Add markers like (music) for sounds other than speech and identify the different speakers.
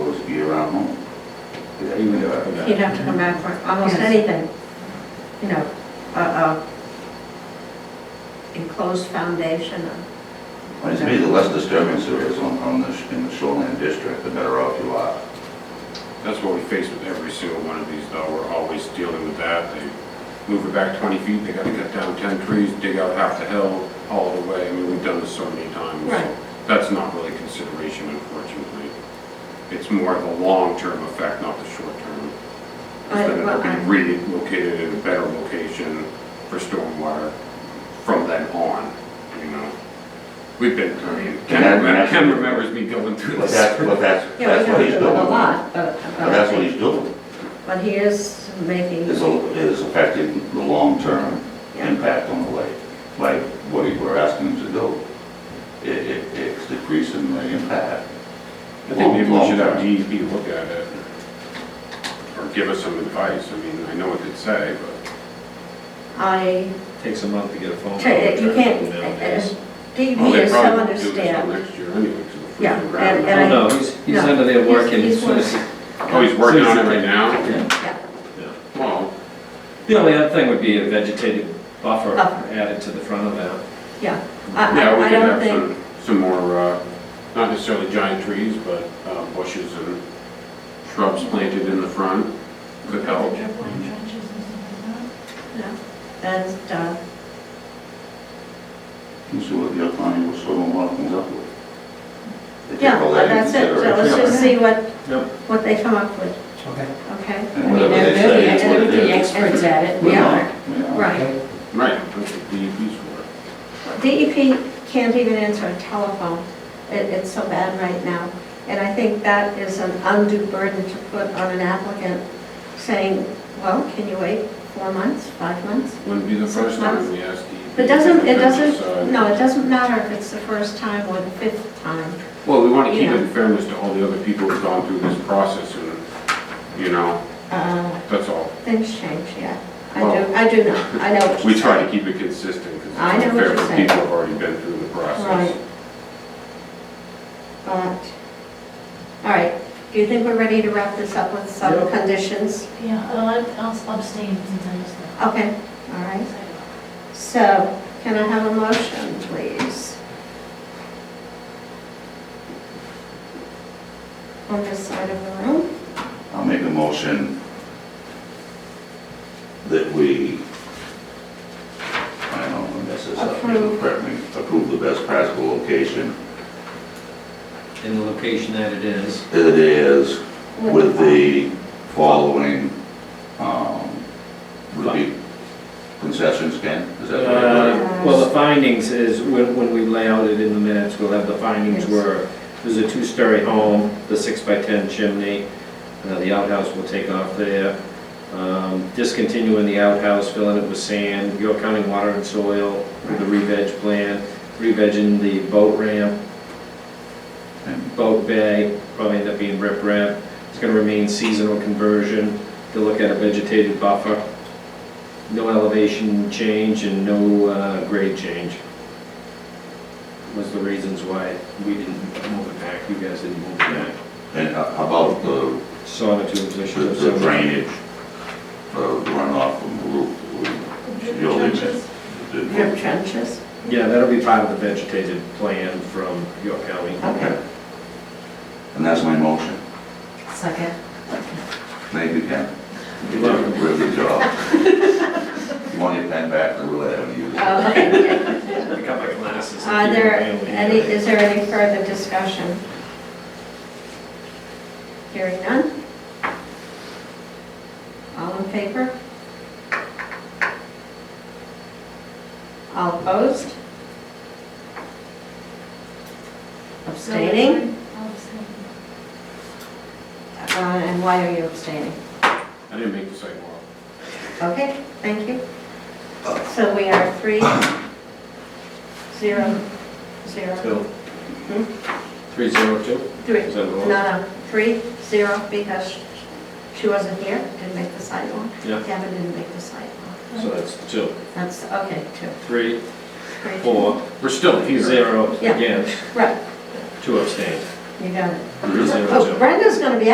Speaker 1: around home. Even if I forgot.
Speaker 2: You'd have to come back for almost
Speaker 3: Yes.
Speaker 2: anything, you know, a, a enclosed foundation or,
Speaker 1: Well, to me, the less disturbance there is on, on the, sh- in the shoreline district, the better off you are.
Speaker 4: That's what we face with every single one of these, though, we're always dealing with that. They move it back 20 feet, they gotta cut down 10 trees, dig out half the hill, haul it away, I mean, we've done this so many times. so
Speaker 2: Right.
Speaker 4: That's not really consideration, unfortunately. It's more of a long-term effect, not the short-term.
Speaker 2: I-
Speaker 4: Instead
Speaker 2: well,
Speaker 4: of
Speaker 2: I-
Speaker 4: being relocated in a better location for stormwater from then on, you know? We've been, I mean, Ken
Speaker 1: And that-
Speaker 4: remem- Ken remembers me going through
Speaker 1: But
Speaker 4: this.
Speaker 1: that's, but that's,
Speaker 3: Yeah, we
Speaker 1: that's what
Speaker 3: don't
Speaker 1: he's
Speaker 3: do
Speaker 1: doing.
Speaker 3: it a lot, but.
Speaker 1: But that's what he's doing,
Speaker 2: uh, but he is making,
Speaker 1: is, a- is affecting the long-term
Speaker 2: yeah,
Speaker 1: impact on the lake, like what he- we're asking him to do. It, it, it's decreasing the impact.
Speaker 4: I think maybe we should have
Speaker 1: Long-term.
Speaker 4: DEP look at it, or give us some advice, I mean, I know what they'd say, but
Speaker 2: I,
Speaker 5: Takes a month to get a
Speaker 1: Oh,
Speaker 5: phone.
Speaker 2: ta-
Speaker 5: call
Speaker 2: you can't,
Speaker 5: nowadays.
Speaker 2: DV
Speaker 4: well, they
Speaker 2: is so
Speaker 4: probably do this till
Speaker 2: understand.
Speaker 4: next year anyway, because of the
Speaker 2: Yeah,
Speaker 4: freezing ground.
Speaker 2: and
Speaker 5: Oh, no, he's, he's
Speaker 2: No,
Speaker 5: under there
Speaker 2: he's-
Speaker 5: working.
Speaker 2: he's
Speaker 5: as soon as he-
Speaker 4: Oh, he's working on it right now?
Speaker 5: Yeah,
Speaker 2: Yeah.
Speaker 5: yeah.
Speaker 4: Well,
Speaker 5: The only other thing would be a vegetated buffer
Speaker 2: Buffer.
Speaker 5: added to the front of that.
Speaker 2: Yeah, I-
Speaker 4: yeah,
Speaker 2: I,
Speaker 4: we
Speaker 2: I
Speaker 4: could
Speaker 2: don't
Speaker 4: have
Speaker 2: think,
Speaker 4: some, some more, uh, not necessarily giant trees, but uh, bushes and shrubs planted in the front, could help.
Speaker 2: no, and, uh,
Speaker 1: You see what the upline was sort of comes up with. They take
Speaker 2: yeah,
Speaker 1: all
Speaker 2: but
Speaker 1: that into
Speaker 2: that's it, so let's
Speaker 1: consideration.
Speaker 2: just see what,
Speaker 5: Yep.
Speaker 2: what they come up with,
Speaker 6: Okay.
Speaker 2: okay?
Speaker 3: I
Speaker 1: And
Speaker 3: mean,
Speaker 1: whatever
Speaker 3: they're,
Speaker 1: they say is what
Speaker 3: they're
Speaker 1: it
Speaker 3: the
Speaker 1: is.
Speaker 3: experts at it.
Speaker 1: We're
Speaker 2: Yeah.
Speaker 1: not, we are.
Speaker 2: Right,
Speaker 4: Right, that's what DEP's for.
Speaker 2: DEP E can't even answer a telephone, it, it's so bad right now. And I think that is an undue burden to put on an applicant, saying, well, can you wait four months, five months?
Speaker 4: Wouldn't be the
Speaker 2: Six
Speaker 4: first time
Speaker 2: months.
Speaker 4: we asked DEP.
Speaker 2: It doesn't,
Speaker 4: to
Speaker 2: it
Speaker 4: uh,
Speaker 2: doesn't,
Speaker 4: decide.
Speaker 2: no, it doesn't matter if it's the first time or the fifth time.
Speaker 4: Well, we want to keep
Speaker 2: Yeah.
Speaker 4: it in fairness to all the other people who've gone through this process and, you know,
Speaker 2: Uh,
Speaker 4: that's all.
Speaker 2: Things change, yeah. I do,
Speaker 4: Well-
Speaker 2: I do know, I know what
Speaker 4: We
Speaker 2: you're
Speaker 4: try to
Speaker 2: saying.
Speaker 4: keep it consistent because it's
Speaker 2: I know what
Speaker 4: unfair
Speaker 2: you're
Speaker 4: for
Speaker 2: saying.
Speaker 4: people who've already been through the
Speaker 2: Right.
Speaker 4: process.
Speaker 2: But, all right, do you think we're ready to wrap this up with some
Speaker 5: Yep.
Speaker 2: conditions?
Speaker 7: Yeah, I'll I'll abstain since I just left.
Speaker 2: Okay, all right. So can I have a motion, please? On this side of the room?
Speaker 1: I'll make a motion that we, I don't know when this is up, you can correct me, approve the best practical location
Speaker 5: In the location that it is.
Speaker 1: that it is with the following, um, would be concessions, Ken? Is that what it was?
Speaker 5: Uh, Well, the findings is, when when we lay out it in the minutes, we'll have the findings
Speaker 2: Yes.
Speaker 5: were, there's a two-story home, the six-by-ten chimney, uh, the outhouse will take off there, um, discontinuing the outhouse, filling it with sand, York County Water and Soil, with the re-veg plan, re-vegging the boat ramp,
Speaker 1: And
Speaker 5: boat bay, probably end up being rip ramp. It's gonna remain seasonal conversion, to look at a vegetated buffer. No elevation change and no uh, grade change. Was the reasons why we didn't move it back, you guys didn't move it back.
Speaker 1: and how about the,
Speaker 5: Sonotube
Speaker 1: the
Speaker 5: position of
Speaker 1: the
Speaker 5: some.
Speaker 1: drainage, the runoff from the roof? You'll leave it. Did-
Speaker 2: Drip um, trenches,
Speaker 5: Yeah, that'll be part of the vegetated plan from York County.
Speaker 1: Okay. And that's my motion.
Speaker 3: Second.
Speaker 1: Thank you, Ken. You did
Speaker 5: You're
Speaker 1: a
Speaker 5: welcome.
Speaker 1: really good job. You want your pen back, I really haven't used
Speaker 2: Oh,
Speaker 1: it.
Speaker 2: okay. (laughs)
Speaker 5: I got my glasses.
Speaker 2: Are Uh, there any, is there any further discussion? Hearing none? All in favor? All opposed? Abstaining?
Speaker 7: I'll abstain.
Speaker 2: Uh, And why are you abstaining?
Speaker 4: I didn't make the sidewalk.
Speaker 2: Okay, thank you. So we are three, zero, zero,
Speaker 5: Two. Three zero two?
Speaker 2: three.
Speaker 5: Is that the
Speaker 2: Hmm? No,
Speaker 5: one?
Speaker 2: no, three, zero, because she wasn't here, didn't make the sidewalk.
Speaker 5: Yeah.
Speaker 2: Gavin didn't make the sidewalk.
Speaker 5: So that's two.
Speaker 2: That's, okay, two.
Speaker 5: Three,
Speaker 2: Three, two.
Speaker 5: four,
Speaker 4: We're still here.
Speaker 5: zero,
Speaker 2: Yeah.
Speaker 5: again.
Speaker 2: Right,
Speaker 5: Two abstain.
Speaker 2: you got it.
Speaker 5: Zero,
Speaker 2: Oh,
Speaker 5: two.
Speaker 2: Brenda's gonna be